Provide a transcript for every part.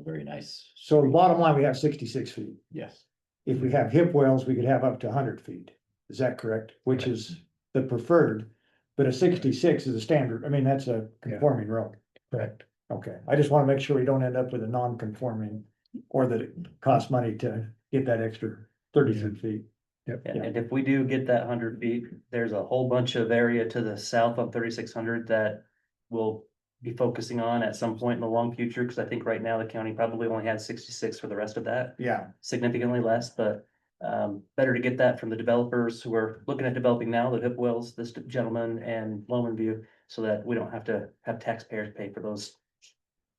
very nice, So bottom line, we have sixty-six feet. yes. If we have hip wells, we could have up to hundred feet. Is that correct? Which Correct. is the preferred. But a sixty-six is a standard. I mean, that's a conforming road. Correct. Okay, I just want to make sure we don't end up with a non-conforming or that it costs money to get that extra thirty-three feet. Yeah, Yeah. and if we do get that hundred feet, there's a whole bunch of area to the south of thirty-six hundred that we'll be focusing on at some point in the long future, because I think right now the county probably only has sixty-six for the rest of that, Yeah, significantly less, but um, better to get that from the developers who are looking at developing now, the Hip Wells, this gentleman and Loman View, so that we don't have to have taxpayers pay for those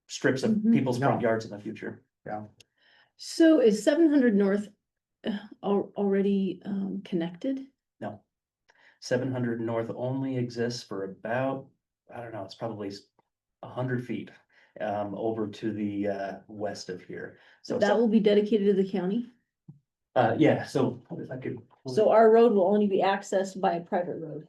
strips of Mhm. people's No. front yards in the future. So is seven hundred north uh, al- already um connected? seven hundred north only exists for about, I don't know, it's probably a hundred feet um, over to the uh, west of here. Oh, So, So it's- that will be dedicated to the county? uh, yeah, so if I could. So our road will only be accessed by a private road,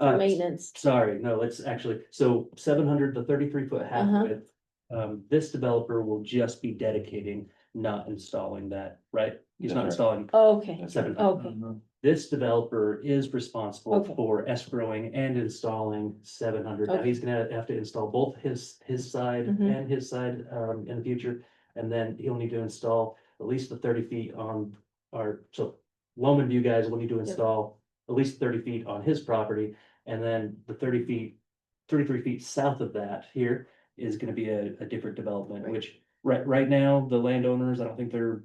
Uh, maintenance. Sorry, no, it's actually, so seven hundred to thirty-three foot half Uh-huh. width. Um, this developer will just be dedicating, not installing that, right? He's not That's installing Okay, seven okay, this developer is responsible Okay. for escrowing and installing seven hundred. Now, Okay. he's gonna have to install both his, his side Mhm. and his side, um, in the future. And then he'll need to install at least the thirty feet on our, so Loman View guys will need to install at least thirty feet on his property. And then the thirty feet, thirty-three feet south of that here is gonna be a, a different development, Right. which right, right now, the landowners, I don't think they're,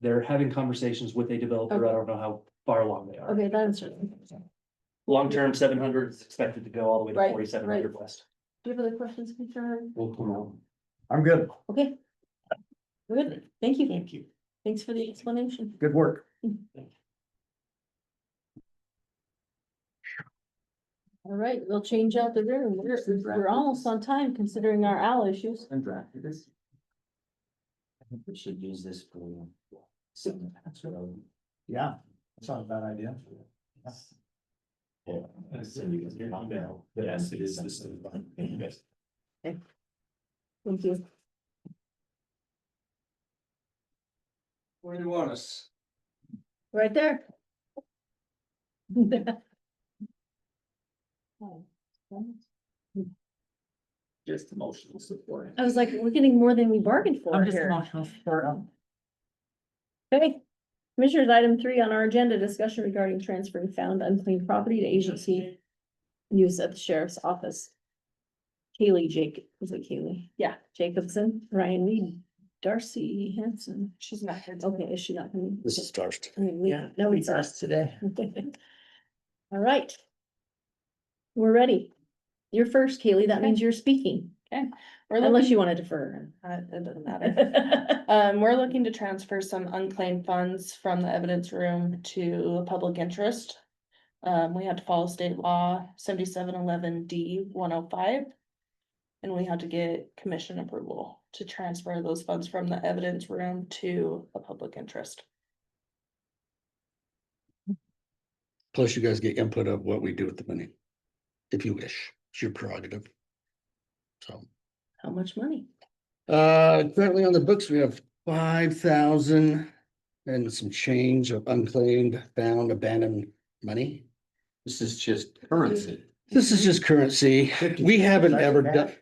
they're having conversations with a developer. I Okay. don't know how far along they are. okay, that's. Do Long-term, seven hundred is expected to go all the way to Right, forty-seven hundred west. you have other questions, concern? We'll come out. I'm good. Okay. Good, thank you. Thank you. Thanks for the explanation. Good work. All right, we'll change out the room. We're, we're almost on time considering our owl issues. And drafted this. I think we should use this for. some- so- Yeah, that's not a bad idea. Yeah. Yes, it is. this is- Yes. Thank you. Where do you want us? Right there. Just emotional support. I was like, we're getting more than we bargained for here. Okay, commissioners, item three on our agenda, discussion regarding transferring found unclaimed property to agency use at the sheriff's office. Kaylee Jake, is it Kaylee? Yeah. Jacobson, Ryan Lee, Darcy Hanson. She's not here. Okay, is she not? This is Darcy. Yeah, no, it's us today. All right. We're ready. You're first, Kaylee. That means you're speaking, We're unless looking, you want to defer. uh, it doesn't matter. Um, we're looking to transfer some unclaimed funds from the evidence room to public interest. Um, we had to follow state law seventy-seven eleven D one oh five. And we had to get commission approval to transfer those funds from the evidence room to a public interest. Plus you guys get input of what we do with the money. If you wish, it's your prerogative. So, How much money? uh, currently on the books, we have five thousand and some change of unclaimed, found, abandoned money. This is just currency. This is just currency. We haven't ever done, Cash?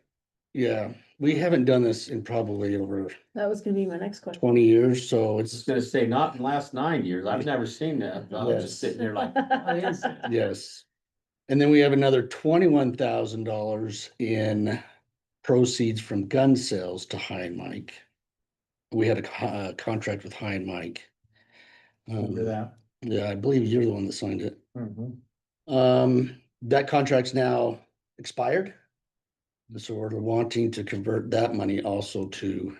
yeah, we haven't done this in probably over That was gonna be my next question. twenty years, so I was it's, gonna say, not in the last nine years. I've never seen that. I was just sitting there like, what is Oh, it? yes. And then we have another twenty-one thousand dollars in proceeds from gun sales to High and Mike. We had a co- uh, contract with High and Mike. Remember Um, that? yeah, I believe you're the one that signed it. Mhm. Um, that contract's now expired. And So we're wanting to convert that money also to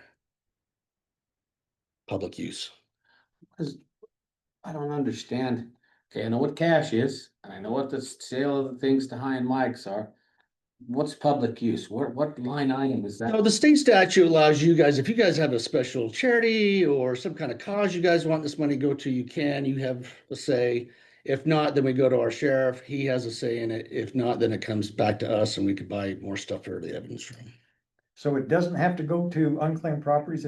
public use. I don't understand. Okay, I know what cash is, and I know what the sale of the things to high and mics are. What's public use? What, what line item is No, that? the state statute allows you guys, if you guys have a special charity or some kind of cause you guys want this money to go to, you can, you have a say. If not, then we go to our sheriff. He has a say in it. If not, then it comes back to us and we could buy more stuff for the evidence room. So it doesn't have to go to unclaimed properties.